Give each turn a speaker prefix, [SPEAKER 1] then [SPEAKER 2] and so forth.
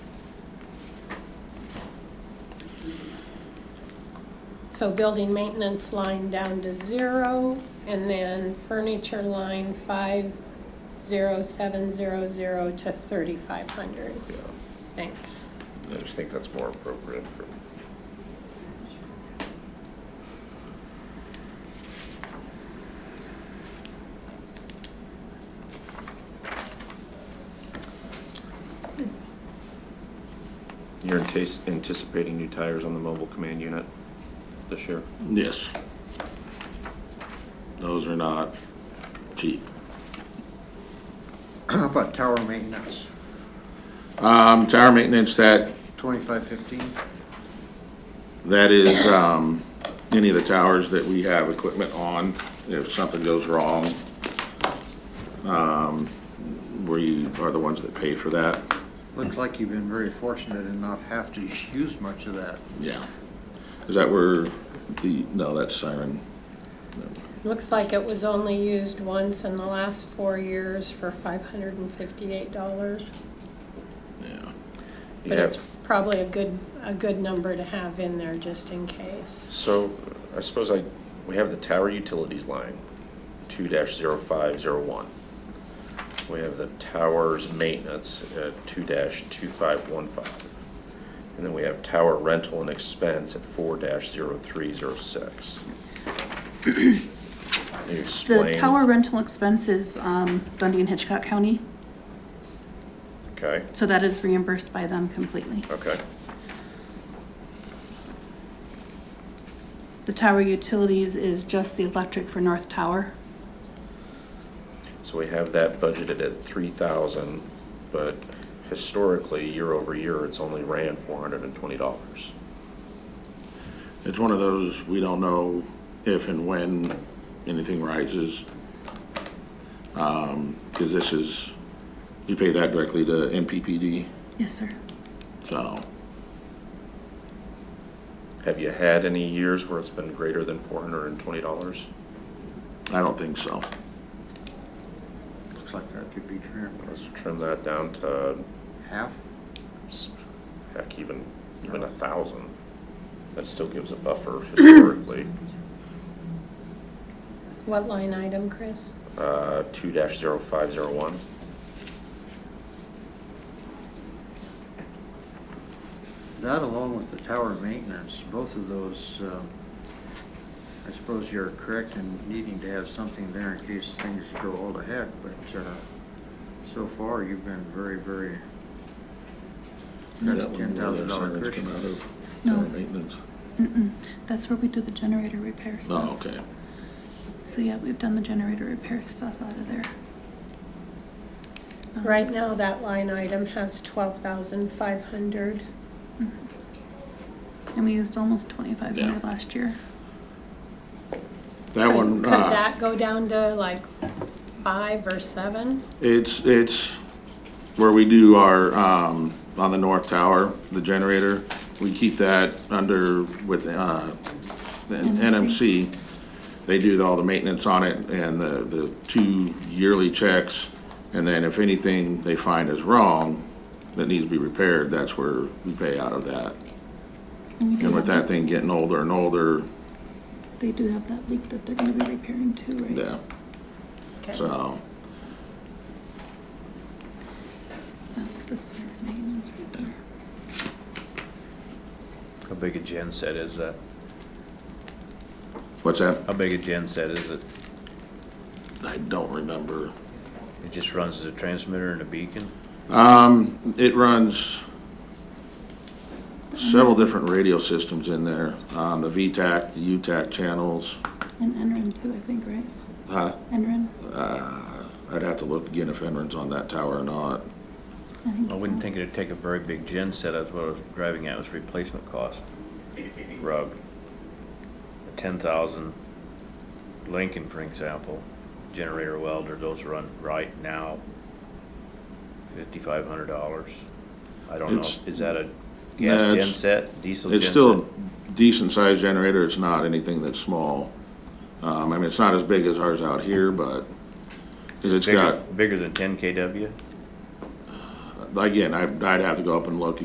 [SPEAKER 1] so building maintenance line down to zero, and then furniture line five zero seven zero zero to thirty-five hundred.
[SPEAKER 2] Yeah,
[SPEAKER 1] Thanks.
[SPEAKER 2] I just think that's more appropriate for,
[SPEAKER 3] You're antis- anticipating new tires on the mobile command unit this year?
[SPEAKER 4] Yes. Those are not cheap.
[SPEAKER 5] How about tower maintenance,
[SPEAKER 4] Um, tower maintenance, that,
[SPEAKER 5] twenty-five fifteen?
[SPEAKER 4] that is, um, any of the towers that we have equipment on, if something goes wrong, um, we are the ones that pay for that.
[SPEAKER 5] Looks like you've been very fortunate in not have to use much of that.
[SPEAKER 4] Yeah. Is that where the, no, that's siren.
[SPEAKER 1] Looks like it was only used once in the last four years for five hundred and fifty-eight dollars.
[SPEAKER 4] Yeah.
[SPEAKER 1] But
[SPEAKER 3] Yeah.
[SPEAKER 1] it's probably a good, a good number to have in there just in case.
[SPEAKER 3] So I suppose I, we have the tower utilities line, two dash zero five zero one. We have the towers maintenance at two dash two five one five. And then we have tower rental and expense at four dash zero three zero six. Can you
[SPEAKER 6] The
[SPEAKER 3] explain?
[SPEAKER 6] tower rental expenses, um, Dundee and Hitchcock County,
[SPEAKER 3] Okay,
[SPEAKER 6] so that is reimbursed by them completely.
[SPEAKER 3] okay,
[SPEAKER 6] The tower utilities is just the electric for North Tower.
[SPEAKER 3] so we have that budgeted at three thousand, but historically, year over year, it's only ran four hundred and twenty dollars.
[SPEAKER 4] It's one of those, we don't know if and when anything rises. Because this is, you pay that directly to MPPD,
[SPEAKER 6] Yes, sir.
[SPEAKER 4] so
[SPEAKER 3] Have you had any years where it's been greater than four hundred and twenty dollars?
[SPEAKER 4] I don't think so.
[SPEAKER 5] Looks like that could be trimmed,
[SPEAKER 3] Let's trim that down to,
[SPEAKER 5] half?
[SPEAKER 3] s- heck, even, even a thousand. That still gives a buffer historically,
[SPEAKER 1] What line item, Chris?
[SPEAKER 3] uh, two dash zero five zero one.
[SPEAKER 5] That along with the tower maintenance, both of those, um, I suppose you're correct in needing to have something there in case things go all to heck, but, uh, so far, you've been very, very, that's a ten thousand dollar cushion.
[SPEAKER 6] No.
[SPEAKER 4] Tower maintenance.
[SPEAKER 6] That's where we do the generator repair
[SPEAKER 4] Oh,
[SPEAKER 6] stuff.
[SPEAKER 4] okay.
[SPEAKER 6] So yeah, we've done the generator repair stuff out of there. Um,
[SPEAKER 1] Right now, that line item has twelve thousand five hundred.
[SPEAKER 6] And we used almost twenty-five hundred
[SPEAKER 4] Yeah.
[SPEAKER 6] last year.
[SPEAKER 4] That one,
[SPEAKER 1] Could
[SPEAKER 4] uh,
[SPEAKER 1] that go down to like five or seven?
[SPEAKER 4] it's, it's where we do our, um, on the north tower, the generator. We keep that under with, uh, the NMC. They do all the maintenance on it and the, the two yearly checks. And then if anything they find is wrong that needs to be repaired, that's where we pay out of that.
[SPEAKER 6] we do
[SPEAKER 4] And with
[SPEAKER 6] have-
[SPEAKER 4] that thing getting older and older,
[SPEAKER 6] They do have that leak that they're gonna be repairing too, right?
[SPEAKER 4] yeah,
[SPEAKER 1] Okay.
[SPEAKER 4] so,
[SPEAKER 6] That's the sewer maintenance right there.
[SPEAKER 7] How big a gen set is that?
[SPEAKER 4] what's that?
[SPEAKER 7] How big a gen set is it?
[SPEAKER 4] I don't remember.
[SPEAKER 7] It just runs as a transmitter and a beacon?
[SPEAKER 4] Um, It runs several different radio systems in there, um, the VTAC, the UTAC channels.
[SPEAKER 6] And Enron too, I think, right?
[SPEAKER 4] Huh?
[SPEAKER 6] Enron?
[SPEAKER 4] I'd have to look again if Enron's on that tower or not.
[SPEAKER 6] I think
[SPEAKER 7] I wouldn't
[SPEAKER 6] so.
[SPEAKER 7] think it'd take a very big gen set, that's what I was driving at, was replacement cost. Rug. Ten thousand Lincoln, for example, generator welder, those run right now fifty-five hundred dollars. I don't know,
[SPEAKER 4] It's-
[SPEAKER 7] is that a
[SPEAKER 4] No,
[SPEAKER 7] gas gen
[SPEAKER 4] it's-
[SPEAKER 7] set, diesel gen
[SPEAKER 4] It's
[SPEAKER 7] set?
[SPEAKER 4] still a decent sized generator, it's not anything that's small. Um, I mean, it's not as big as ours out here, but, cause it's
[SPEAKER 7] Bigger-
[SPEAKER 4] got,
[SPEAKER 7] Bigger than ten KW?
[SPEAKER 4] again, I, I'd have to go up and look